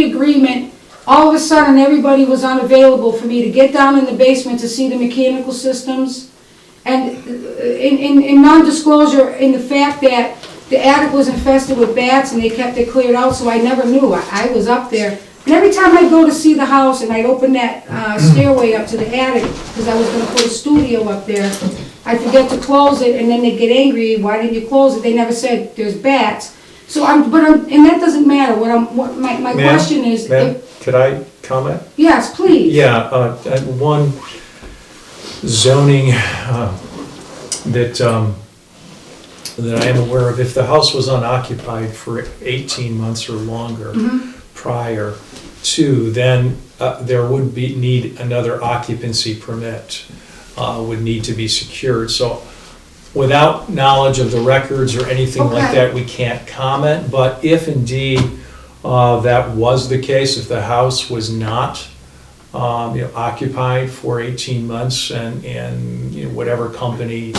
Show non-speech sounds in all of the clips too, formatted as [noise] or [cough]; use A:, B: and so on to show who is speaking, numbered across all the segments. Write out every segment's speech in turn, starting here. A: pre-agreement, all of a sudden, everybody was unavailable for me to get down in the basement to see the mechanical systems. And uh, in, in, in non-disclosure, in the fact that the attic was infested with bats and they kept it cleared out, so I never knew. I, I was up there. And every time I'd go to see the house and I'd open that uh, stairway up to the attic, because I was gonna put a studio up there, I forget to close it, and then they get angry, why didn't you close it? They never said, there's bats. So I'm, but I'm, and that doesn't matter, what I'm, what, my, my
B: Ma'am?
A: question is,
B: Ma'am,
A: if-
B: could I comment?
A: yes, please.
B: Yeah, uh, uh, one zoning, uh, that, um, that I am aware of, if the house was unoccupied for eighteen months or longer
A: Mm-hmm.
B: prior to, then, uh, there would be, need another occupancy permit, uh, would need to be secured, so without knowledge of the records or anything like
A: Okay.
B: that, we can't comment, but if indeed, uh, that was the case, if the house was not um, you know, occupied for 18 months and, and, you know, whatever company,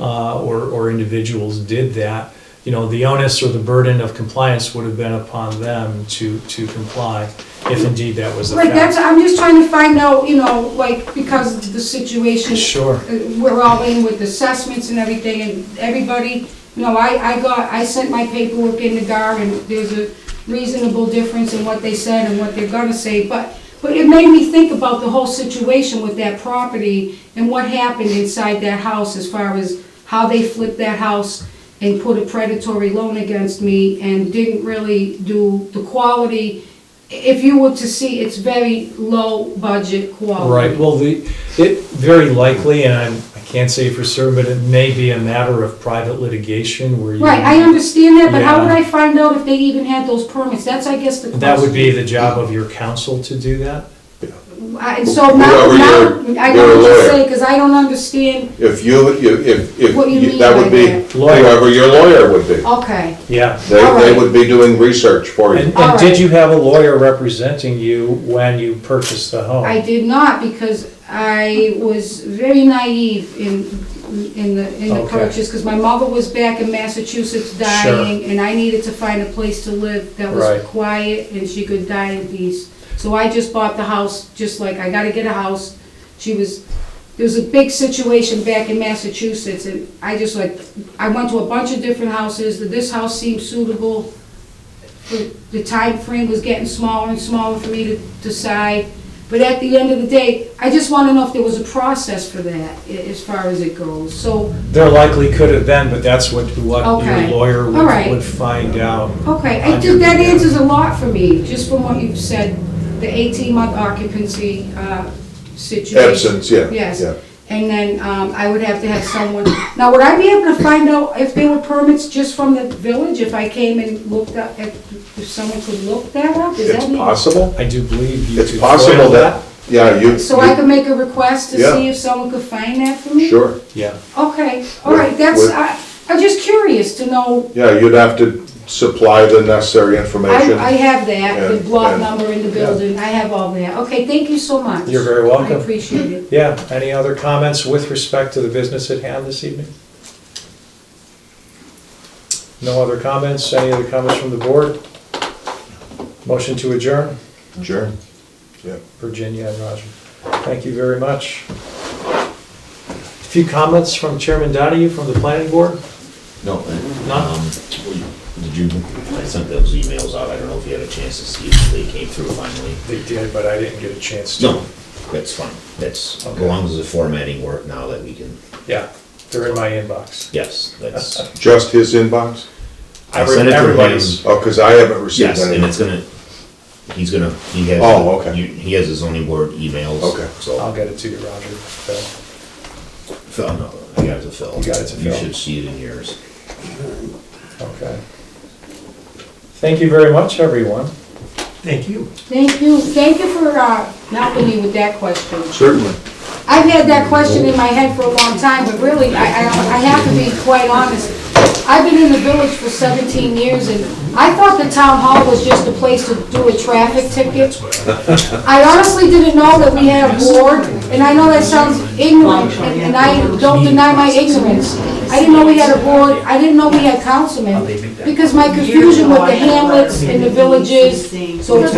B: uh, or, or individuals did that, you know, the onus or the burden of compliance would have been upon them to, to comply, if indeed that was the
A: Right, that's,
B: fact.
A: I'm just trying to find out, you know, like, because the situation
B: Sure,
A: Uh, we're all in with assessments and everything, and everybody, you know, I, I got, I sent my paperwork in to DAR, and there's a reasonable difference in what they said and what they're gonna say, but, but it made me think about the whole situation with that property and what happened inside that house as far as how they flipped that house and put a predatory loan against me and didn't really do the quality. If you were to see, it's very low budget quality.
B: right, well, the, it very likely, and I'm, I can't say for certain, but it may be a matter of private litigation where you.
A: Right, I understand that, but how would
B: Yeah.
A: I find out if they even had those permits? That's, I guess, the question.
B: That would be the job of your counsel to do that?
A: I- And so now,
C: Whatever
A: now,
C: you're-
A: I
C: you're a
A: don't just
C: lawyer.
A: say, because I don't understand,
C: If you, you- if, if,
A: What you
C: you-
A: mean
C: that
A: by
C: would be
A: that?
B: Lawyer.
C: whoever your lawyer would be.
A: okay,
B: Yeah.
C: They,
A: All
C: they
A: right.
C: would be doing research for you.
B: And, and
A: Alright.
B: did you have a lawyer representing you when you purchased the home?
A: I did not, because I was very naive in, in the, in the
B: Okay.
A: purchase, because my mother was back in Massachusetts dying, and I needed to find a place to live that was
B: Right.
A: quiet and she could die in peace. So I just bought the house, just like, I gotta get a house. She was, there was a big situation back in Massachusetts, and I just like, I went to a bunch of different houses, this house seemed suitable. The- The time frame was getting smaller and smaller for me to decide, but at the end of the day, I just wanna know if there was a process for that, a- as far as it goes, so,
B: There likely could have been, but that's what, what your
A: Okay.
B: lawyer
A: All
B: would,
A: right.
B: would find out.
A: okay, I think that answers a lot for me, just from what you've said, the eighteen-month occupancy, uh, situation.
C: Absence, yeah.
A: Yes.
C: yeah.
A: And then um, I would have to have someone, now would I be able to find out if there were permits just from the village? If I came and looked up, if if someone could look that up, is
C: It's
A: that me?
C: possible,
B: I do believe you
C: it's
B: could
C: possible
B: foil
C: that, yeah, you.
A: So I could make a request to
C: Yeah.
A: see if someone could find that for
C: you-
A: me?
C: Sure,
B: Yeah,
A: Okay, all right, that's,
C: Would-
A: I, I'm just curious to know,
C: yeah, you'd have to supply the necessary
A: I,
C: information.
A: I have that, the
C: Yeah,
A: block
C: yeah.
A: number in the building, I have all that. Okay, thank you so much.
B: You're very welcome.
A: I appreciate it.
B: yeah. Any other comments with respect to the business at hand this evening? No other comments? Any other comments from the board? Motion to adjourn?
C: Sure, yeah.
B: Virginia and Roger. Thank you very much. A few comments from Chairman Donahue from the planning board?
D: No,
B: None?
D: um, did you, I sent those emails out, I don't know if you had a chance to see if they came through finally.
B: They did, but I didn't get a chance to.
D: No, that's fine, that's, as
B: Okay.
D: long as the formatting work now that we can,
B: Yeah, they're in my inbox.
D: yes,
B: [laughs]
D: that's.
C: Just his inbox?
D: I sent it to him.
B: Everybody's,
C: Oh, because I haven't received
D: Yes, and
C: any.
D: it's gonna, he's gonna, he has.
C: Oh, okay.
D: you- He has his zoning board emails.
C: Okay.
B: I'll
D: So,
B: get it to you, Roger. So,
D: Phil, no, I got it to Phil.
B: You got it to
D: You
B: Phil.
D: should see it in yours.
B: Okay. Thank you very much, everyone.
E: Thank you.
A: Thank you, thank you for uh, helping me with that question.
C: Certainly.
A: I've had that question in my head for a long time, but really, I, I I have to be quite honest. I've been in the village for 17 years, and I thought the town hall was just a place to do a traffic ticket. I honestly didn't know that we had a board, and I know that sounds ignorant, and and I don't deny my ignorance. I didn't know we had a board, I didn't know we had councilmen, because my confusion with the hamlets and the villages, so it's